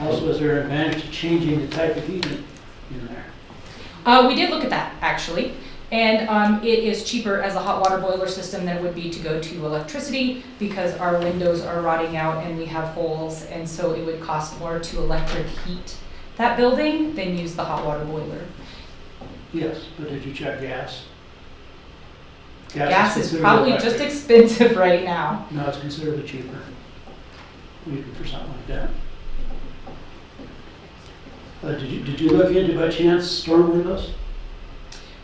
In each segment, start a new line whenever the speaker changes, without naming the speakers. Also, is there an advantage to changing the type of heating in there?
Uh, we did look at that, actually, and, um, it is cheaper as a hot water boiler system than it would be to go to electricity because our windows are rotting out and we have holes, and so it would cost more to electric heat that building than use the hot water boiler.
Yes, but did you check gas?
Gas is
considerably
probably just
electric.
expensive right now.
No, it's considerably cheaper. Even for something like that. Uh, did you, did you look into by chance storm windows?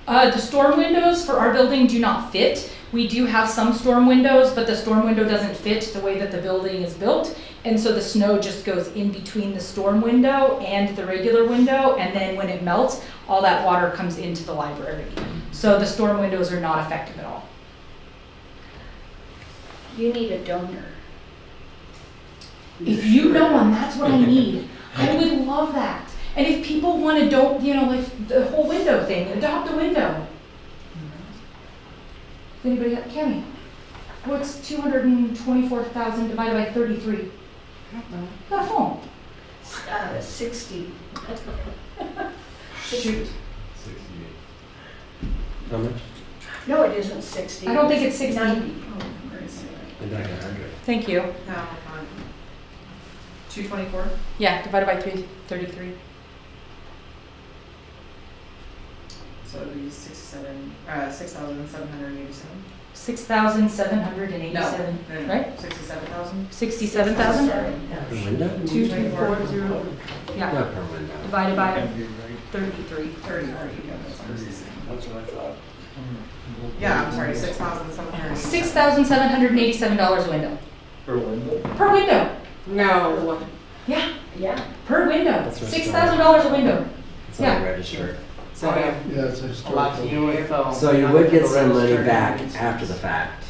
Uh, the storm windows for our building do not fit. We do have some storm windows, but the storm window doesn't fit the way that the building is built. And so the snow just goes in between the storm window and the regular window. And then when it melts, all that water comes into the library. So the storm windows are not effective at all.
You need a donor.
If you know one, that's what I need. I would love that. And if people want to don't, you know, like the whole window thing, adopt a window. If Anybody got, Cammy? What's two hundred and twenty-four thousand divided by thirty-three? Got a phone.
Uh, sixty.
Shoot.
How much?
No, it isn't sixty.
I don't think it's 60.
Ninety. Oh, where is it?
Thank you.
Two twenty-four?
Yeah, divided by three, thirty-three.
So it would be sixty-seven, uh, six thousand seven hundred eighty-seven?
Six thousand seven hundred and eighty-seven, right?
Sixty-seven thousand?
Sixty-seven thousand?
Per window?
Two, two, four, zero.
Oh.
Yeah,
Not per window.
divided by thirty-three.
Thirty, thirty, yeah, that's what I was saying.
That's what I thought.
Yeah, I'm sorry, six thousand seven hundred eighty-seven.
Six thousand seven hundred and eighty-seven dollars a window,
Per window?
per window.
No.
Yeah,
Yeah,
per window,
That's
six
right.
thousand dollars a window.
It's not
Yeah.
registered.
So we have
Yeah, it's
a lot to do with.
Oh,
So you would get some money back after the fact,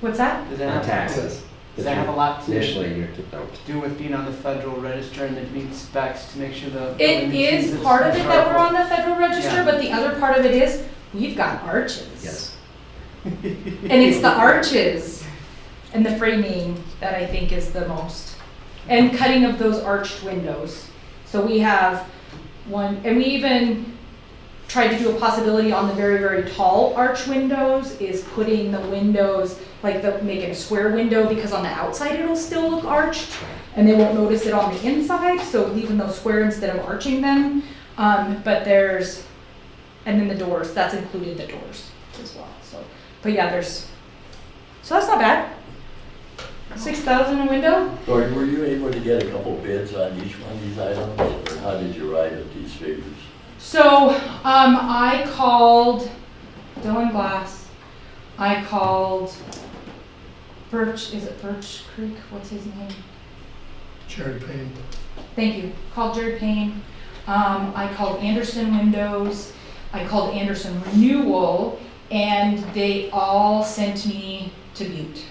What's that?
Does
on
that have,
taxes.
does that have a lot to
Initially, you don't.
do with being on the federal register and it meets specs to make sure the.
It is part of it that we're on the federal register,
Yeah.
but the other part of it is, we've got arches.
Yes.
And it's the arches and the framing that I think is the most. And cutting of those arched windows. So we have one, and we even tried to do a possibility on the very, very tall arch windows is putting the windows, like the, making a square window because on the outside it'll still look arched and they won't notice it on the inside, so leaving those square instead of arching them. Um, but there's, and then the doors, that's included the doors as well, so. But yeah, there's, so that's not bad. Six thousand a window?
Gordon, were you able to get a couple bids on each one of these items, or how did you arrive at these figures?
So, um, I called Dylan Glass. I called Birch, is it Birch Creek? What's his name?
Cherry paint.
Thank you. Called Jared Payne. Um, I called Anderson Windows. I called Anderson Renewal, and they all sent me to Butte.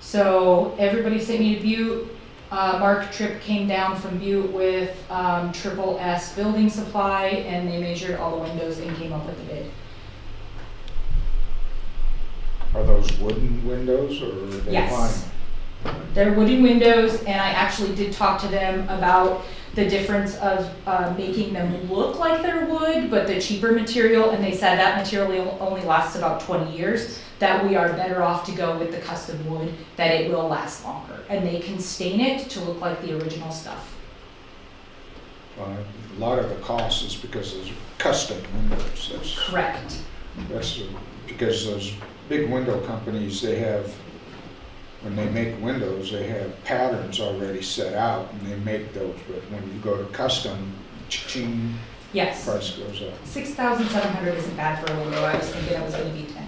So everybody sent me to Butte. Uh, Mark Tripp came down from Butte with um, Triple S Building Supply, and they measured all the windows and came up with the bid.
Are those wooden windows or are they
Yes.
vinyl?
They're wooden windows, and I actually did talk to them about the difference of uh, making them look like they're wood, but the cheaper material, and they said that material only lasts about 20 years, that we are better off to go with the custom wood, that it will last longer, and they can stain it to look like the original stuff.
Uh, A lot of the cost is because those are custom windows. That's,
Correct.
that's uh, because those big window companies, they have, when they make windows, they have patterns already set out and they make those. But when you go to custom, ching,
Yes.
price goes up.
6,700 isn't bad for a window. I was thinking it was going to be 10.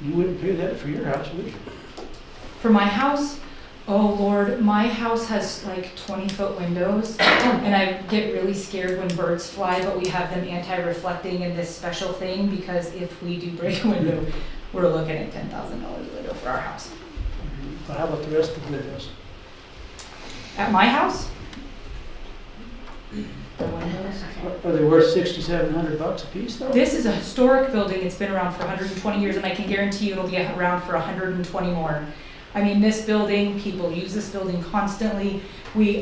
You wouldn't pay that for your house, would you?
For my house, oh lord, my house has like twenty foot windows and I get really scared when birds fly, but we have them anti-reflecting in this special thing because if we do break a window, we're looking at ten thousand dollars a window for our house.
But how about the rest of the windows?
At my house? The windows.
Are- Are they worth sixty-seven hundred bucks a piece though?
This is a historic building, it's been around for hundred and twenty years, and I can guarantee you it'll be around for hundred and twenty more. I mean, this building, people use this building constantly, we